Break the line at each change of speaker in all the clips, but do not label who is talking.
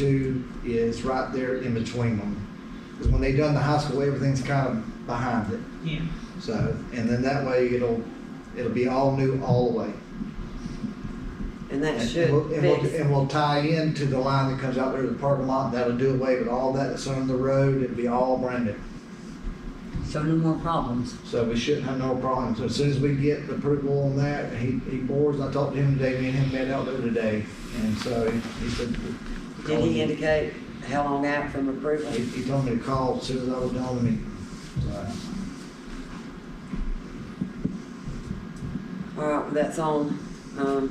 into is right there in between them. Because when they done the high school, everything's kind of behind it.
Yeah,
So, and then that way it'll, it'll be all new all the way.
And that
And
should
we'll- And we'll,
fix,
and we'll tie into the line that comes out there to the parking lot. That'll do away with all that that's on the road. It'll be all brand new.
So no more problems.
So we shouldn't have no problems. As soon as we get the approval on that, he, he boards, I talked to him today, me and him met out there today. And so he he said.
did he indicate how long out from approval?
He, he told me to call as soon as I was done with me.
All right, well, that's on, um,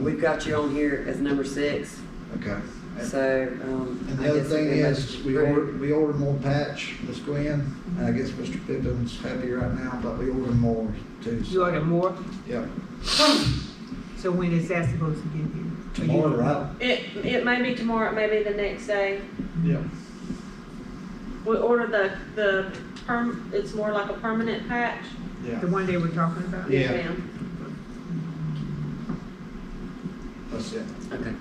we've got you on here as number six,
Okay.
so, um.
And
I
the other
guess
thing
we must
is, we
approve.
ordered, we ordered more patch, Miss Gwen, and I guess Mr. Pippin's happy right now, but we ordered more too.
you
so-
order more,
Yep.
so when is that supposed to get here? Or you
Tomorrow,
don't know?
right?
It, it may be tomorrow, it may be the next day.
Mm-hmm.
Yep.
We order the, the perm, it's more like a permanent patch.
Yeah.
The one they were talking about?
Yeah.
ma'am.
That's it.
Okay,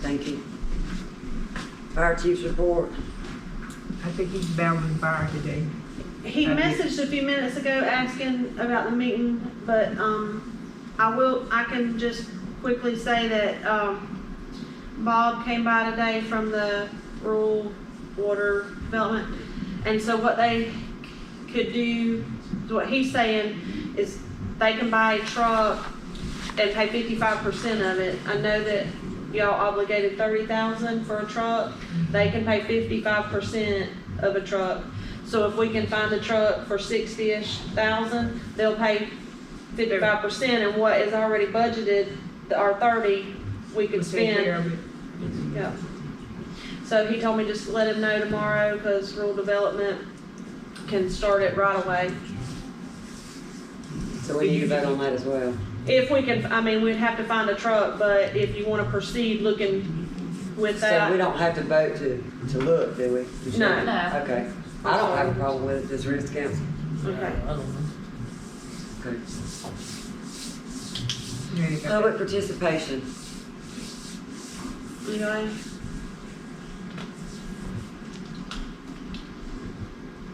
thank you. Fire chief's report,
I think he's battling fire today.
He
Thank you.
messaged a few minutes ago asking about the meeting, but, um, I will, I can just quickly say that, um, Bob came by today from the rural water development. And so what they could do, what he's saying is they can buy a truck and pay fifty-five percent of it. I know that y'all obligated thirty thousand for a truck, they can pay fifty-five percent of a truck. So if we can find a truck for sixty-ish thousand, they'll pay fifty-five percent and what is already budgeted, the- our thirty, we
We'll
could
take
spend.
care of it.
Yeah. So he told me just to let him know tomorrow, cause rural development can start it right away.
so we need to vote on that as well.
If we can, I mean, we'd have to find a truck, but if you wanna proceed looking with
So we
that,
don't have to vote to, to look, do we? Just-
No.
No.
Okay, I don't have a problem with it, does Rick's council?
okay.
Okay.
Yeah, they got
Public participation,
You know,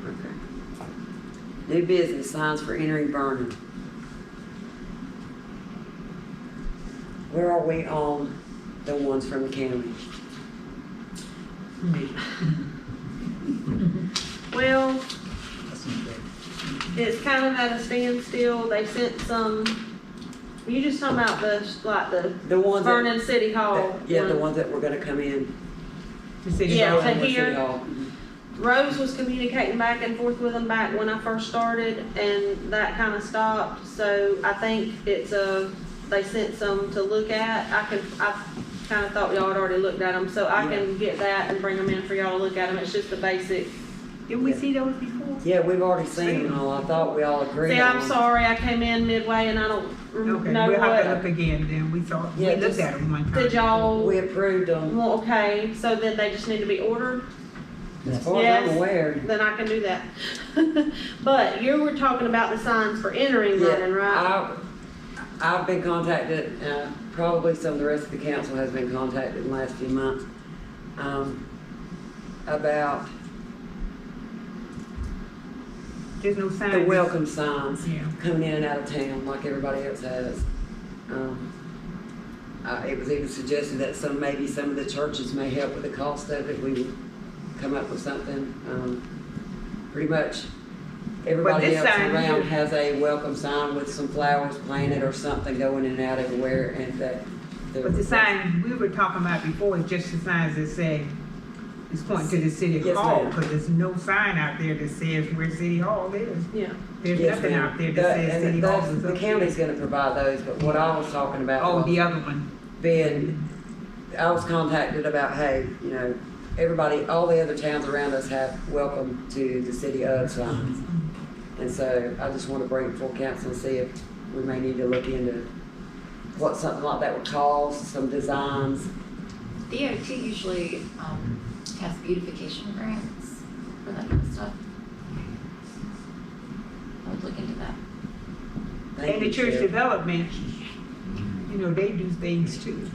okay. New business, signs for entering Vernon. Where are we on the ones from the county?
me.
well, it's kind of at a standstill. They sent some, you just talking about the, like the
The ones that.
Vernon City Hall.
that- Yeah, the
one.
ones that were gonna come in.
The city
Yeah,
hall.
to
Vernon City
hear.
Hall.
Rose was communicating back and forth with them back when I first started, and that kind of stopped. So I think it's a, they sent some to look at. I could, I kind of thought y'all had already looked at them, so I can get that and bring them in for y'all to look at them. It's just the basic.
Didn't we see those before?
Yeah, we've already seen them all, I thought we all agreed on.
See, I'm
them.
sorry, I came in midway and I don't
Okay,
rem- know
we'll have to
what.
look again then, we saw, we
Yeah,
looked
just-
at them one time.
Did y'all,
We approved them,
well, okay, so then they just need to be ordered?
as far as
Yes.
I'm aware.
Then I can do that. But you were talking about the signs for entering
Yeah,
Vernon, right?
I- I've been contacted, uh, probably some of the rest of the council has been contacted in the last few months, um, about
There's no sign.
the welcome signs
Yeah.
coming in and out of town like everybody else has. Um, uh, it was even suggested that some, maybe some of the churches may help with the cost of it, we would come up with something, um, pretty much everybody
this
else
sign
around
here-
has a welcome sign with some flowers planted or something going in and out everywhere and that.
But the sign we were talking about before is just the signs that say, it's pointing to the city
Yes,
hall,
ma'am.
because there's no sign out there that says where city hall is.
Yeah.
There's
Yes,
nothing
ma'am.
out there that
That-
says
and
city hall
that's-
is
The
up
county's
there.
gonna provide those, but what I was talking about.
Oh,
was-
the other one,
been, I was contacted about, hey, you know, everybody, all the other towns around us have welcome to the city of signs. And so I just want to bring it full council and see if we may need to look into what something like that would cost, some designs.
DOT usually um, has beautification grants for that kind of stuff. I would look into that.
Thank
and the
you,
church
Sheriff.
development, you know, they do things too.